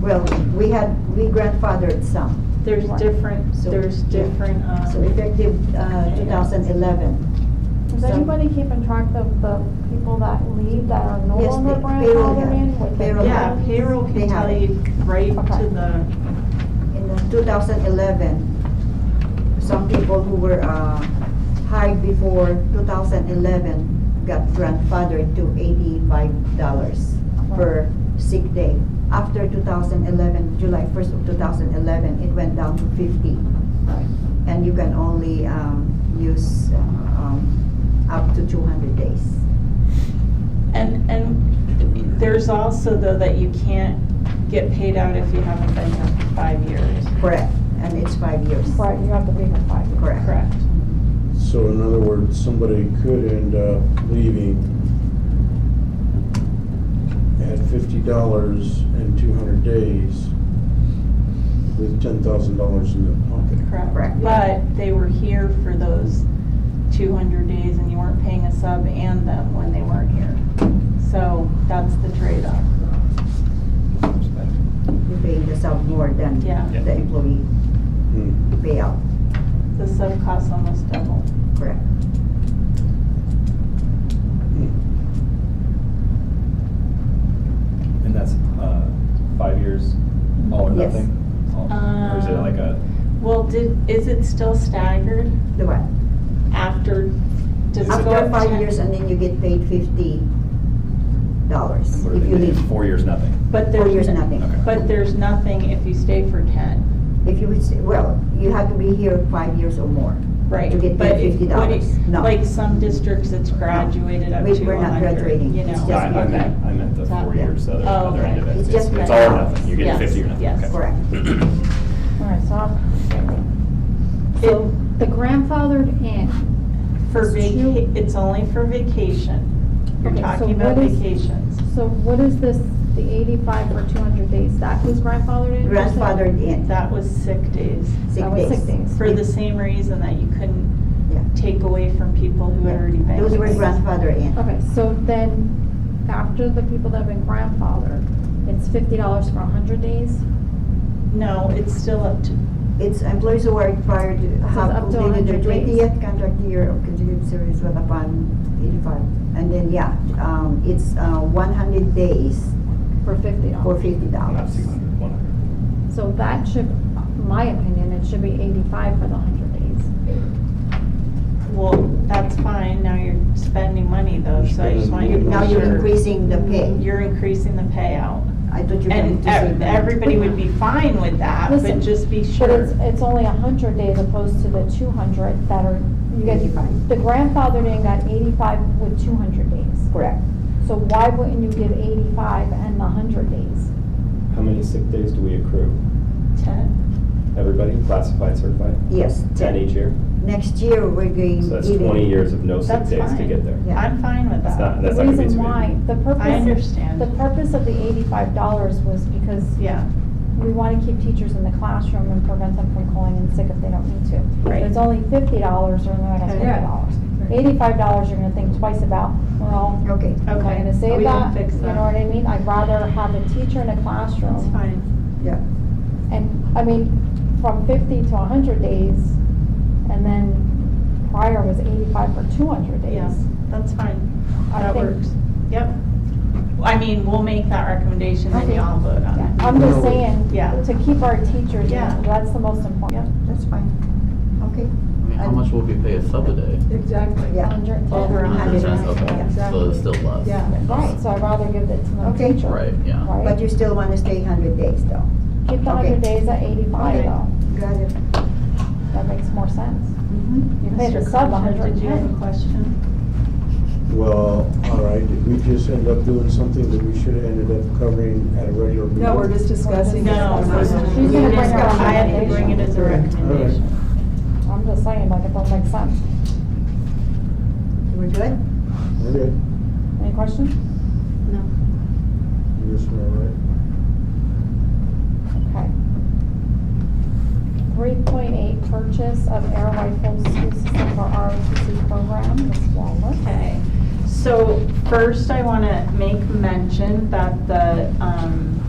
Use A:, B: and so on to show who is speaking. A: Well, we had, we grandfathered some,
B: There's different,
A: So-
B: there's different,
A: so
B: um,
A: effective uh, 2011.
C: Is
A: So-
C: anybody keeping track of the people that leave that are no
A: Yes,
C: longer
A: pa- payroll,
C: grandfathered
A: yeah.
C: in? with the
A: Payroll.
B: yeah,
C: funds?
B: payroll
A: They
B: can
A: have
B: tell
A: it.
B: you right
C: Okay.
B: to the,
A: In the 2011, some people who were uh, hired before 2011 got grandfathered to $85 per sick day. After 2011, July 1st of 2011, it went down to 50. And you can only um, use uh, um, up to 200 days.
B: and, and there's also though that you can't get paid out if you haven't been here for five years,
A: Correct, and it's five years.
C: Right, you have to be in five years.
A: Correct.
B: correct?
D: So in other words, somebody could end up leaving at fifty dollars and two hundred days with ten thousand dollars in their pocket.
A: Correct.
B: But they were here for those two hundred days and you weren't paying a sub and them when they weren't here. So that's the trade-off.
A: You pay the sub more than
B: Yeah. Yeah.
A: the employee
D: Hmm.
A: payout,
B: The sub costs almost double.
A: correct?
D: hmm.
E: And that's uh, five years, all or
A: Yes. Um,
E: nothing? All- Or is it like a,
B: Well, did, is it still staggered
A: The what?
B: after? does it go
A: After
B: up
A: five
B: 10?
A: years and then you get paid fifty dollars
E: what
A: if
E: do
A: you
E: they do?
A: leave.
E: four years, nothing?
B: But
A: Four
B: there's,
A: years,
B: n-
A: nothing.
E: Okay.
B: but there's nothing if you stay for ten,
A: If you would, say- well, you have to be here five years or more.
B: right?
A: You get paid
B: But it-
A: $50.
B: what it-
A: No.
B: Like some districts, it's graduated up
A: We-
B: to
A: we're not
B: one hundred,
A: graduating.
B: you
A: It's
B: know?
E: No, I
A: just
E: I
A: one
E: meant, I meant the
B: Top,
E: four
A: yeah.
E: years, the other-
B: Oh,
E: other end of
A: okay.
E: it.
A: It's
E: It's
A: just
E: it's all or
A: balance.
E: nothing, you're getting
B: Yes,
E: fifty or nothing.
B: yes.
E: Okay.
A: Correct.
C: All right, so I'm. So the grandfathered in,
B: For
C: It's two-
B: vaca, it's only for vacation. You're
C: Okay, so
B: talking about
C: what is-
B: vacations.
C: so what is this, the eighty-five for two hundred days, that was grandfathered in? you're saying?
A: Grandfathered in,
B: That was sick days,
A: sick
C: That was
A: days.
C: sick days.
B: for the same reason that you
A: Yeah.
B: couldn't take away from people who had already been.
A: Those were grandfathered in,
C: Okay, so then, after the people that have been grandfathered, it's fifty dollars for hundred days?
B: No, it's still up to,
A: it's employees who are prior to have
C: up to
A: completed their
C: 100 days.
A: twentieth contract year of continued service with upon eighty-five. And then, yeah, um, it's, uh, one hundred days
C: For fifty
A: for
C: dollars.
A: fifty
E: Not
A: dollars.
E: two hundred, one hundred.
C: So that should, my opinion, it should be eighty-five for the hundred days.
B: well, that's fine, now you're spending money though, so I just want you to.
A: Now
B: make
A: you're
B: sure
A: increasing the pay.
B: You're increasing the payout.
A: I thought you were
B: And
A: going to say
B: ev-
A: that.
B: everybody would be fine with that, but
C: Listen,
B: just be
C: But
B: sure.
C: it's, it's only a hundred days opposed to the two hundred that are, you get,
A: Eighty-five.
C: the grandfathered in got eighty-five with two hundred days.
A: Correct.
C: So why wouldn't you give eighty-five and the hundred days?
F: How many sick days do we accrue?
B: Ten,
F: Everybody, classified, certified?
A: Yes,
F: Ten
A: ten.
F: each year?
A: Next year, we're going.
F: So that's
A: even.
F: twenty years of no sick
B: That's
F: days to
B: fine.
F: get there.
A: Yeah.
B: I'm fine with
F: That's not,
B: that.
C: The
F: that's not gonna be
C: reason
F: too
C: why,
F: many.
C: the
B: I
C: purpose, the
B: understand,
C: purpose of the eighty-five dollars was because
B: yeah,
C: we want to keep teachers in the classroom and prevent them from calling in sick if they don't need to.
B: Right.
C: But It's only fifty dollars or not, that's
B: Okay.
C: fifty dollars. Eighty-five dollars, you're gonna think twice about, well,
A: Okay,
C: am I
B: Okay. Oh,
C: gonna save
B: We can
C: that?
B: fix
C: You know
B: that.
C: what I mean? I'd rather have a teacher in a
B: that's
C: classroom.
B: fine.
A: yeah.
C: And, I mean, from fifty to hundred days, and then prior was eighty-five for two hundred days.
B: Yeah, that's fine.
C: I
B: That
C: think-
B: works. Yep. I mean, we'll make that recommendation and
C: Okay.
B: y'all vote on
C: Yeah,
B: it.
C: I'm just
D: No.
C: saying,
B: Yeah.
C: to keep our teachers, you
B: Yeah.
C: know, that's the most
B: Yep.
C: important.
A: That's fine. Okay,
G: I mean, how
A: And-
G: much will we pay a sub a day?
H: Exactly.
A: yeah.
C: Hundred and ten.
B: Over a
G: Hundred cents, okay, so it's still less.
H: Yeah.
C: Right, so I'd rather give it to the
A: Okay.
C: teacher.
G: Right, yeah.
A: But you still want to stay hundred days though.
C: Keep the
A: Okay.
C: hundred days at eighty-five
B: Okay.
C: though,
A: Got it.
C: that makes more sense.
A: Mhm.
C: You pay the
B: Mr.
C: sub
B: Commissioner,
C: hundred
B: Mm-hmm. Did
C: and
B: you have a
C: ten.
B: question?
D: Well, all right, did we just end up doing something that we should have ended up covering at a regular meeting?
H: No, we're just discussing.
B: No,
C: She's gonna
B: we
C: bring
B: just
C: her
B: got- I had to bring it as a
D: recommendation. All right.
B: recommendation.
C: I'm just saying, like, it don't make sense.
A: We're good?
D: Okay,
C: Any questions?
D: I guess we're all right.
C: Okay. Three point eight, purchase of air rifle school system for ROTC program, Ms. Wallace.
B: Okay, so first I want to make mention that the um,